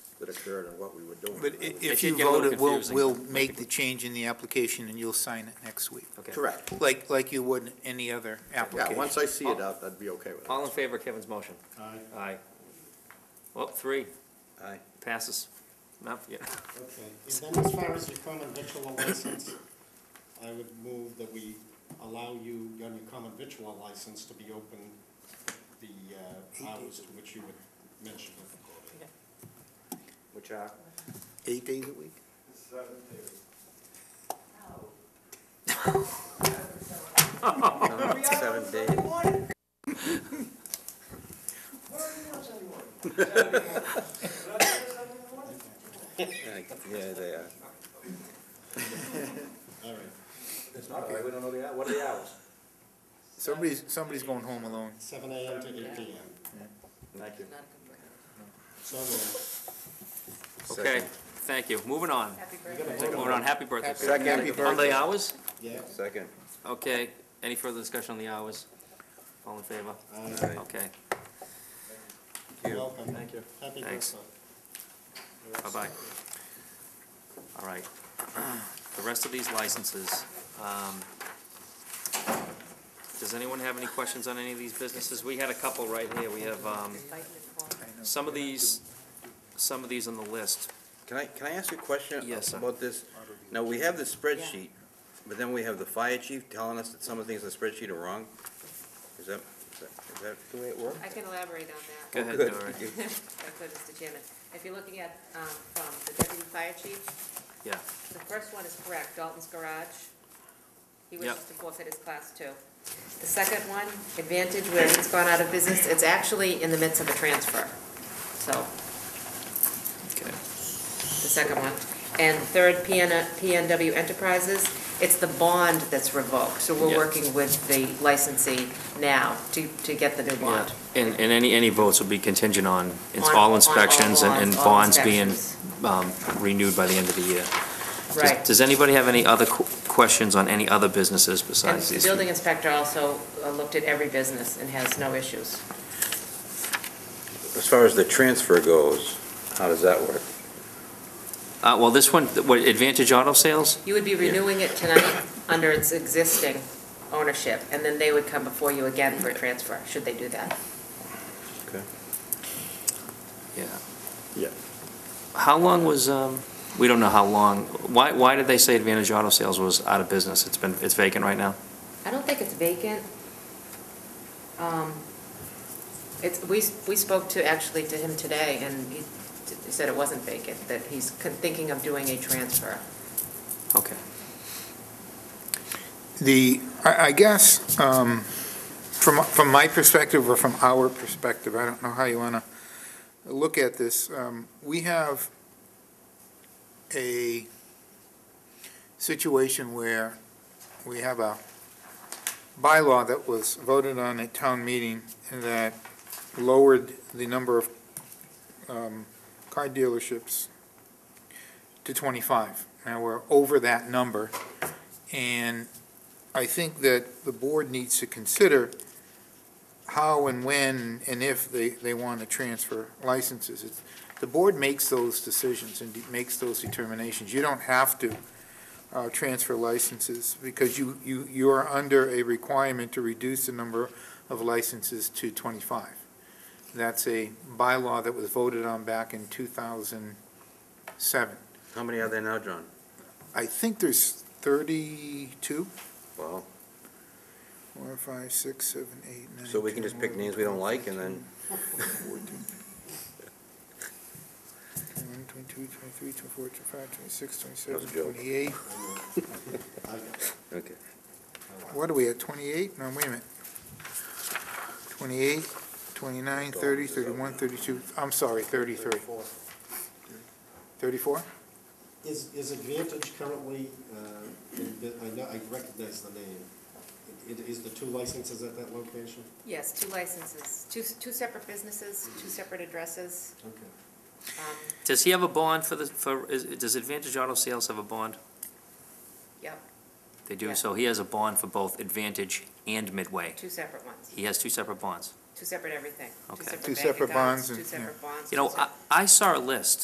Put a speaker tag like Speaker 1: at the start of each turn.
Speaker 1: that occurred and what we were doing.
Speaker 2: But i- if
Speaker 3: did
Speaker 2: you
Speaker 3: get a little
Speaker 2: vote it, we'll,
Speaker 3: confusing.
Speaker 2: we'll make the change in the application and you'll sign it next week,
Speaker 3: Okay.
Speaker 1: Correct.
Speaker 2: like, like you would any other
Speaker 1: Yeah,
Speaker 2: application.
Speaker 1: once I see it, I'd, I'd be okay with it.
Speaker 3: All in favor of Kevin's motion?
Speaker 4: Uh,
Speaker 3: Aye. Aye. Well, three,
Speaker 1: Aye.
Speaker 3: passes. Not, yeah,
Speaker 4: Okay, and then as far as your common victual license, I would move that we allow you, on your common victual license, to be open the uh, hours to which you would mention it.
Speaker 3: which are,
Speaker 2: Eight days a week?
Speaker 1: Seven days. Yeah, they are.
Speaker 4: All right,
Speaker 1: It's not, we don't know the, what are the hours?
Speaker 2: Somebody's, somebody's going home alone.
Speaker 4: seven AM to eight PM.
Speaker 1: Thank you.
Speaker 4: So, moved.
Speaker 3: okay, thank you. Moving on. Moving on, happy birthday. Peter.
Speaker 1: Second. Happy
Speaker 3: On
Speaker 2: birthday.
Speaker 3: the hours?
Speaker 4: yeah,
Speaker 1: Second.
Speaker 3: Okay, any further discussion on the hours? All in favor?
Speaker 4: uh,
Speaker 3: Okay,
Speaker 1: you.
Speaker 4: welcome.
Speaker 1: Thank you.
Speaker 4: Happy
Speaker 3: Thanks.
Speaker 4: birthday.
Speaker 3: bye-bye. All right, the rest of these licenses, um, does anyone have any questions on any of these businesses? We had a couple right here. We have, um, some of these, some of these on the list.
Speaker 5: Can I, can I ask a question?
Speaker 3: Yes, sir.
Speaker 5: About this? Now, we have the spreadsheet, but then we have the fire chief telling us that some of the things in the spreadsheet are wrong? Is that, is that- is that the way it works?
Speaker 6: I can elaborate on that.
Speaker 3: Go
Speaker 5: Oh,
Speaker 3: ahead,
Speaker 5: good.
Speaker 3: Dory.
Speaker 5: You-
Speaker 6: If I could, Mr. Chairman. If you're looking at, um, from the deputy fire chief,
Speaker 3: Yeah,
Speaker 6: the first one is correct, Dalton's Garage. He wishes
Speaker 3: Yep.
Speaker 6: to forfeit his class two. The second one, Advantage, where it's gone out of business, it's actually in the midst of a transfer. So,
Speaker 3: okay.
Speaker 6: the second one. And third, PN, PNW Enterprises, it's the bond that's revoked. So we're
Speaker 3: Yeah.
Speaker 6: working with the licensee now to, to get the new
Speaker 3: Yeah,
Speaker 6: bond.
Speaker 3: and, and any, any votes will be contingent on, it's
Speaker 6: On- on
Speaker 3: all inspections and and
Speaker 6: all
Speaker 3: bonds being
Speaker 6: inspections.
Speaker 3: um, renewed by the end of the year. Does-
Speaker 6: Right.
Speaker 3: Does anybody have any other qu- questions on any other businesses
Speaker 6: And
Speaker 3: besides
Speaker 6: the
Speaker 3: these?
Speaker 6: building inspector also uh, looked at every business and has no issues.
Speaker 5: As far as the transfer goes, how does that work?
Speaker 3: Uh, well, this one, what, Advantage Auto Sales?
Speaker 6: You would be renewing it tonight under its existing ownership, and then they would come before you again for a transfer, should they do that.
Speaker 3: Yeah.
Speaker 1: Yeah.
Speaker 3: How long was, um, we don't know how long, why, why did they say Advantage Auto Sales was out of business? It's been, it's vacant right now?
Speaker 6: I don't think it's vacant. Um, It's, we, we spoke to, actually to him today, and he he said it wasn't vacant, that he's con- thinking of doing a transfer.
Speaker 3: Okay.
Speaker 2: The, I, I guess, um, from, from my perspective or from our perspective, I don't know how you wanna look at this, um, we have a situation where we have a bylaw that was voted on at town meeting that lowered the number of, um, car dealerships to twenty-five. Now, we're over that number, and I think that the board needs to consider how and when and if they, they want to transfer licenses. It's- The board makes those decisions and de- makes those determinations. You don't have to uh, transfer licenses because you, you, you are under a requirement to reduce the number of licenses to 25. That's a bylaw that was voted on back in 2007.
Speaker 5: How many are there now, John?
Speaker 2: I think there's 32?
Speaker 5: Wow.
Speaker 2: Four, five, six, seven, eight, nine.
Speaker 5: So we can
Speaker 2: 10,
Speaker 5: just pick
Speaker 2: 11,
Speaker 5: names we don't like and then,
Speaker 2: 21, 22, 23, 24, 25, 26,
Speaker 5: That
Speaker 2: 27,
Speaker 5: was a joke.
Speaker 2: 28.
Speaker 4: I got it.
Speaker 5: okay.
Speaker 2: What are we at, 28? No, wait a minute. 28, 29, 30, 31, 32, I'm sorry, 33. 34?
Speaker 4: Is, is Advantage currently, uh, in bu- I know, I recognize the name. It, it is the two licenses at that location?
Speaker 6: Yes, two licenses, two, two separate businesses, two separate addresses.
Speaker 4: Okay.
Speaker 6: Um,
Speaker 3: Does he have a bond for the, for, is, does Advantage Auto Sales have a bond?
Speaker 6: Yep,
Speaker 3: They do,
Speaker 6: Yeah.
Speaker 3: so he has a bond for both Advantage and Midway.
Speaker 6: two separate ones,
Speaker 3: He has two separate bonds.
Speaker 6: two separate everything.
Speaker 3: Okay.
Speaker 6: separate
Speaker 2: Two
Speaker 6: bank
Speaker 2: separate bonds
Speaker 6: accounts,
Speaker 2: and-
Speaker 6: Two
Speaker 2: yeah.
Speaker 6: separate bonds.
Speaker 3: You
Speaker 6: two
Speaker 3: know, I,
Speaker 6: separate-
Speaker 3: I saw a list